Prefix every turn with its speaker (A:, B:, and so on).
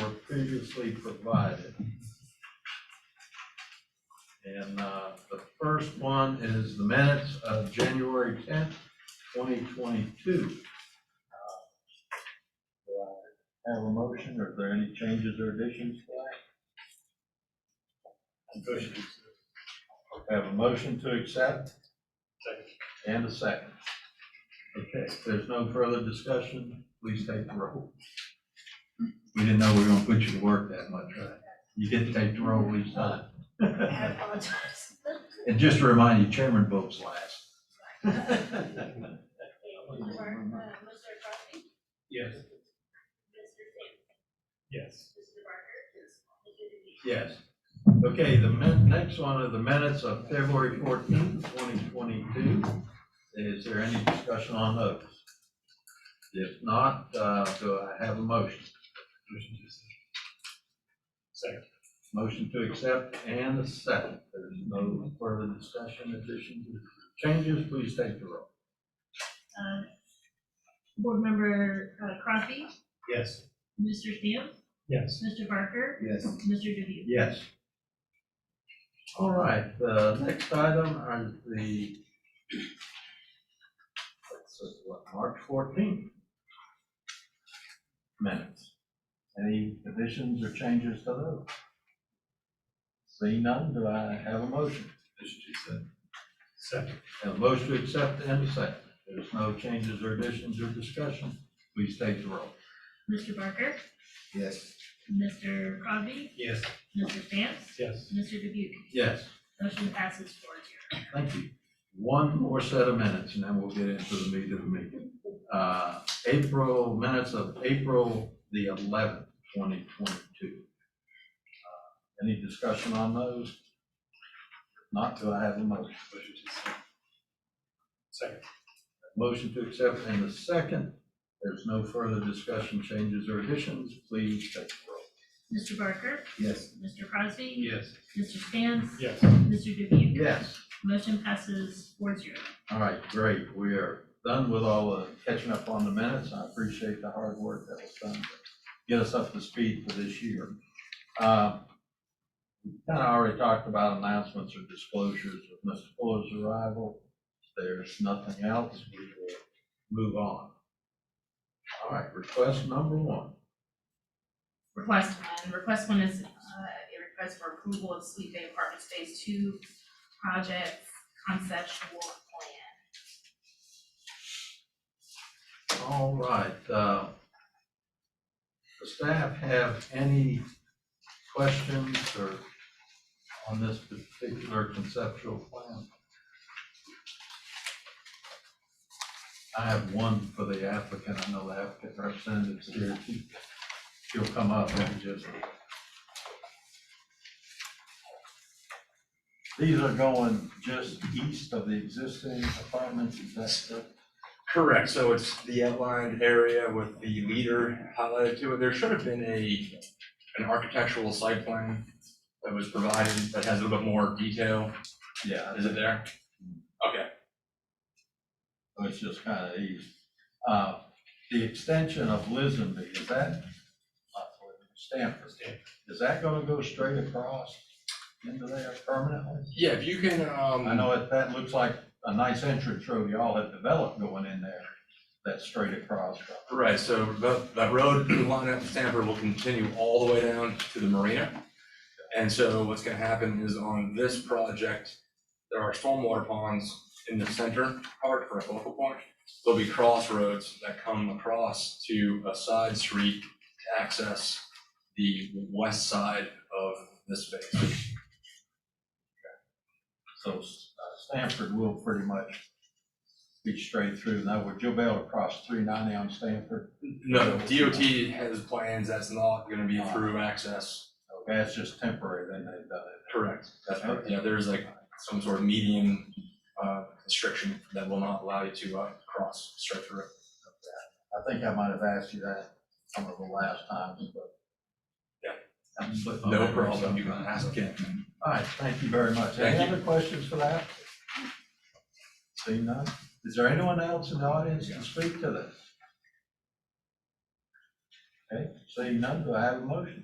A: were previously provided. And uh, the first one is the minutes of January tenth, twenty twenty-two. Uh, Have a motion, or are there any changes or additions to that? Have a motion to accept? And a second. Okay, if there's no further discussion, please take the roll. We didn't know we were gonna put you to work that much, right? You get to take the roll each time.
B: I apologize.
A: And just to remind you, chairman votes last.
B: Mr. Crosby?
A: Yes.
B: Mr. Sam?
C: Yes.
B: Mr. Barker? Yes. Mr. DeVito?
A: Yes. Okay, the min, next one are the minutes of February fourteenth, twenty twenty-two. Is there any discussion on those? If not, uh, do I have a motion?
C: Second.
A: Motion to accept and a second. There's no further discussion, additions, changes, please take the roll.
B: Uh, Board member uh, Crosby?
C: Yes.
B: Mr. Sam?
C: Yes.
B: Mr. Barker?
C: Yes.
B: Mr. DeVito?
A: Yes. All right, the next item are the, let's see, what, March fourteenth minutes. Any additions or changes to those? Seeing none, do I have a motion?
C: Second.
A: Have a motion to accept and a second. There's no changes or additions or discussion. Please take the roll.
B: Mr. Barker?
A: Yes.
B: Mr. Crosby?
C: Yes.
B: Mr. Sam?
C: Yes.
B: Mr. DeVito?
A: Yes,
B: Motion passes four zero.
A: thank you. One more set of minutes, and then we'll get into the meat of the meeting. Uh, April, minutes of April the eleventh, twenty twenty-two. Uh, Any discussion on those? Not till I have a motion.
C: Second.
A: Motion to accept and a second. There's no further discussion, changes, or additions. Please take the roll.
B: Mr. Barker?
A: Yes.
B: Mr. Crosby?
A: Yes.
B: Mr. Sam?
C: Yes.
B: Mr. DeVito?
A: Yes.
B: Motion passes four zero.
A: All right, great. We are done with all the catching up on the minutes. I appreciate the hard work that was done to get us up to speed for this year. Uh, we Kind of already talked about announcements or disclosures with Mr. Fuller's arrival. If There's nothing else. We will move on. All right, request number one.
D: Request one, request one is uh, a request for approval of Sweet Bay Apartments Phase Two project conceptual plan.
A: All right, uh, the staff have any questions or on this particular conceptual plan? I have one for the applicant, I know the applicant representative's here, She- she'll come up and just. These are going just east of the existing apartments, is that correct?
E: Correct, so it's the outlined area with the leader highlighted to it. There should have been a, an architectural site plan that was provided that has a little bit more detail.
A: Yeah.
E: Is it there? Okay,
A: So it's just kind of easy. Uh, The extension of Lisenby, is that, not Stanford, is that going to go straight across into there permanently?
E: yeah, if you can, um.
A: I know it, that looks like a nice entrance road y'all have developed going in there, that's straight across.
E: Right, so that, that road line up to Stanford will continue all the way down to the marina. And so what's gonna happen is on this project, there are stormwater ponds in the center part for a focal point. There'll be crossroads that come across to a side street to access the west side of this space.
A: So uh, Stanford will pretty much be straight through. Now, would you be able to cross three ninety on Stanford?
E: No, DOT has plans, that's not gonna be through access.
A: Okay, that's just temporary, then they've done it.
E: Correct. That's right, yeah, there's like some sort of median uh, constriction that will not allow you to uh, cross straight through.
A: I think I might have asked you that some of the last times, but.
E: Yeah.
A: I'm slipping
E: No
A: on it.
E: problem, you can ask again.
A: All right, thank you very much. Any
E: Thank you.
A: other questions for that? Seeing none, is there anyone else in the audience to speak to this? Okay, seeing none, do I have a motion?